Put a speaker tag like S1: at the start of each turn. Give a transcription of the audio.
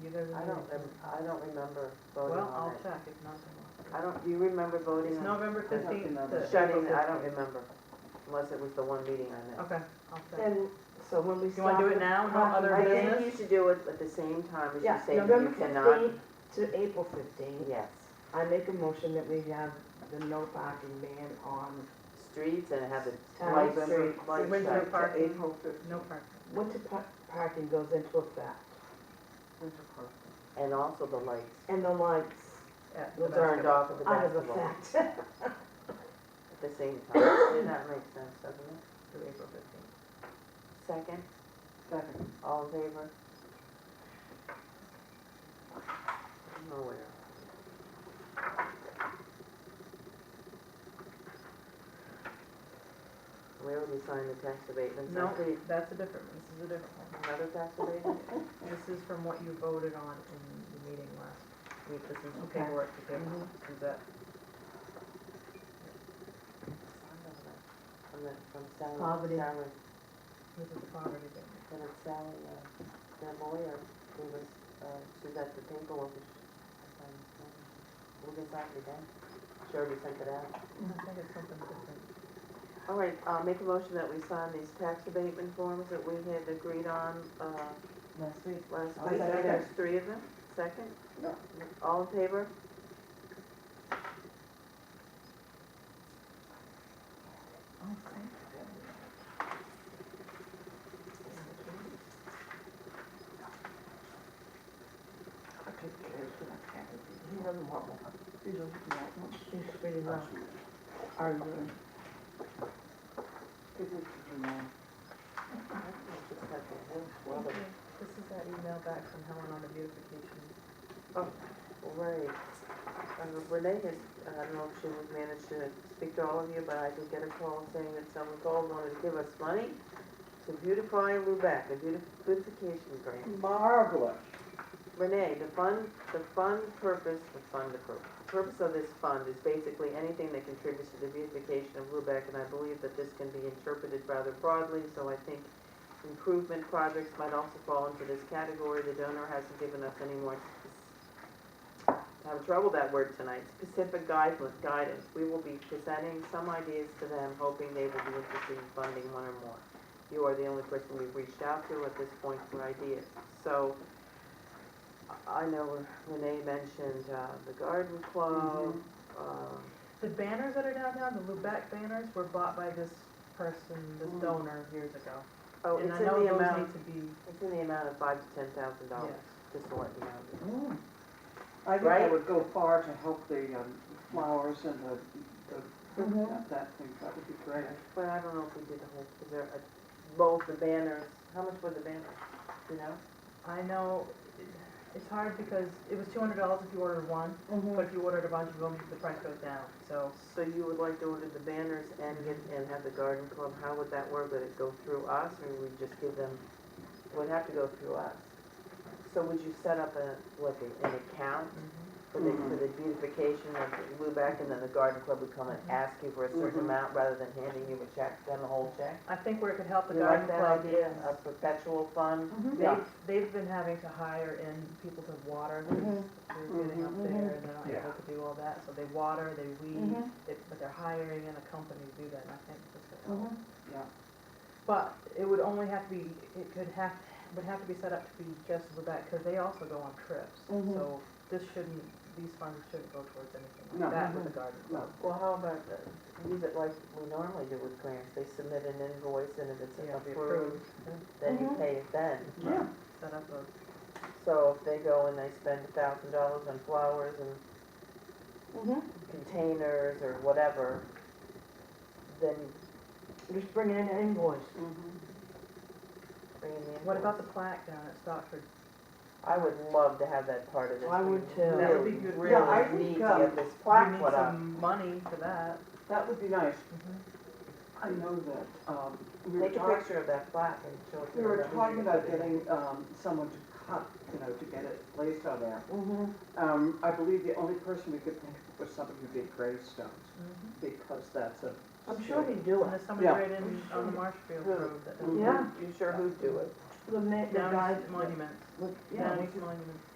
S1: you guys?
S2: I don't, rem- I don't remember voting
S1: Well,
S2: on
S1: I'll
S2: it.
S1: check if nothing.
S2: I don't, do you remember voting
S1: It's
S2: on
S1: November
S2: I don't
S1: fifteenth.
S3: remember.
S2: shutting, I don't remember, unless it was the one meeting I missed.
S1: Okay, I'll check.
S3: And so when we
S1: Do you wanna
S3: stop.
S1: do it now, no other
S2: I
S1: business?
S2: think you should do it at the same time as you
S3: Yeah,
S2: say that
S3: November
S2: you cannot.
S3: fifteenth to April fifteenth,
S2: Yes,
S3: I make a motion that we have the no parking ban on,
S2: streets and have the
S3: Town
S2: lights,
S3: street,
S2: lights.
S1: Windsor
S2: out.
S1: Park. Parking.
S4: April fifteenth.
S1: No parking.
S3: winter pa- parking goes into effect.
S2: And also the lights
S3: And the lights
S1: at the
S3: We'll
S1: basketball.
S2: turned off at the
S3: out of
S2: basketball
S3: effect.
S2: at the same time. Doesn't that make sense, doesn't it?
S1: to April fifteenth.
S2: Second,
S4: Second.
S2: all in favor? Nowhere. Where would we sign the tax abatement?
S1: No, that's a different, this is a different one.
S2: Another tax abatement?
S1: This is from what you voted on in the meeting last week. This is the
S3: Okay.
S1: paperwork to give,
S2: Mm-hmm.
S1: is that,
S2: From the, from Sally.
S3: Poverty.
S2: Sally,
S1: this is the poverty thing.
S2: from Sally, uh, their lawyer, who was, uh, she got the paperwork. and she- I signed this one. We'll get back to them. She already sent it out.
S1: I think it's something different.
S2: All right, uh, make a motion that we sign these tax abatement forms that we had agreed on, uh,
S4: Last week.
S2: last
S4: I'll
S2: week.
S4: second.
S2: There's three of them. Second?
S4: No.
S2: All in favor?
S3: oh, He doesn't want one. He's pretty
S2: Oh,
S3: much arguing.
S2: Well, the-
S1: This is that email back from Helen on the beautification.
S2: Right. Uh, Renee has, I don't know if she would manage to speak to all of you, but I did get a call saying that someone called, wanted to give us money to beautify Lubec, a beautif- beautification grant.
S4: Marvelous.
S2: Renee, the fund, the fund purpose, the fund, the pur- the purpose of this fund is basically anything that contributes to the beautification of Lubec, and I believe that this can be interpreted rather broadly, so I think improvement projects might also fall into this category. The donor hasn't given us any more, s- having trouble with that word tonight, specific guidance, guidance. We will be presenting some ideas to them, hoping they will be interested in funding one or more. You are the only person we've reached out to at this point for ideas. So I I know Renee mentioned uh, the garden club, um,
S1: The banners that are downtown, the Lubec banners, were bought by this person, this
S2: Mm.
S1: donor years ago.
S2: oh,
S1: And I
S2: it's in
S1: know
S2: the
S1: those
S2: amount,
S1: need to be,
S2: it's in the amount of five to ten thousand dollars,
S1: yes.
S2: just to let you know.
S4: Mm. I think
S2: Right?
S4: that would go far to help the um, flowers and the, the,
S3: Mm-hmm.
S2: Mhm.
S4: that thing, that would be great.
S2: But I don't know if we did the whole, is there a, both the banners, how much were the banners, you know?
S1: I know, it- it's hard because it was two hundred dollars if you ordered one,
S2: Mm-hmm.
S1: but if you ordered a bunch of them, the price goes down, so.
S2: So you would like to order the banners and get, and have the garden club, how would that work? Would it go through us or would we just give them, it would have to go through us? So would you set up a, like, a- an account for the, for the beautification of Lubec and then the garden club would come and
S1: Mhm.
S2: ask you for a certain
S4: Mhm.
S2: amount rather than handing you a check, then the whole check?
S1: I think where it could help the
S2: You
S1: garden
S2: like that
S1: club
S2: idea, a
S1: is,
S2: perpetual fund?
S3: Mm-hmm.
S1: they've, they've been having to hire in people to water, these-
S2: Mm-hmm.
S1: they're getting up
S2: Mhm,
S1: there and they're not
S5: Yeah.
S1: able to do all that, so they water, they weed,
S2: Mm-hmm.
S1: they- but they're hiring in a company to do that, and I think this could
S2: Mm-hmm.
S1: help.
S4: Yeah.
S1: But it would only have to be, it could have, would have to be set up to be just with that, because they also go on trips.
S4: Mhm.
S1: So this shouldn't, these funds shouldn't go towards anything
S4: No.
S1: like that with the garden club.
S2: Well, how about, the- use it like we normally do with grants, they submit an invoice and if it's
S1: Yeah, if
S2: approved, then you
S4: Mhm.
S2: pay it then.
S4: Yeah,
S1: Set up a,
S2: So if they go and they spend a thousand dollars on flowers and containers or whatever, then
S3: Just bring in an invoice.
S2: bring in the invoice.
S1: what about the plaque down at Stockford?
S2: I would love to have that part of this.
S3: I
S2: We
S3: would too.
S1: That would be good.
S2: Really,
S4: Yeah, I
S2: really need
S4: think,
S2: to
S4: um,
S2: get this
S1: We
S2: plaque
S1: need
S2: put
S4: uh,
S2: up.
S1: some money for that.
S4: that would be nice.
S3: Mm-hmm.
S4: I know that, um, we were
S2: Take a
S4: talking,
S2: picture of that plaque and show it to
S4: we were
S2: everybody.
S4: talking about getting, um, someone to cut, you know, to get it placed on there.
S3: Mm-hmm.
S4: Um, I believe the only person we could think of was somebody who did gravestones,
S1: Mhm.
S4: because that's a.
S3: Mm-hmm. I'm sure he'd do
S1: And
S3: it.
S1: there's somebody
S4: Yeah.
S1: right in, on the Marshfield
S2: Really?
S1: Road that,
S4: Mhm.
S3: Yeah.
S2: You sure who'd do it?
S3: The ma, the guy.
S1: Downey's Monuments,
S4: Mm-hmm.
S3: with- yeah,
S1: Downey's Monuments.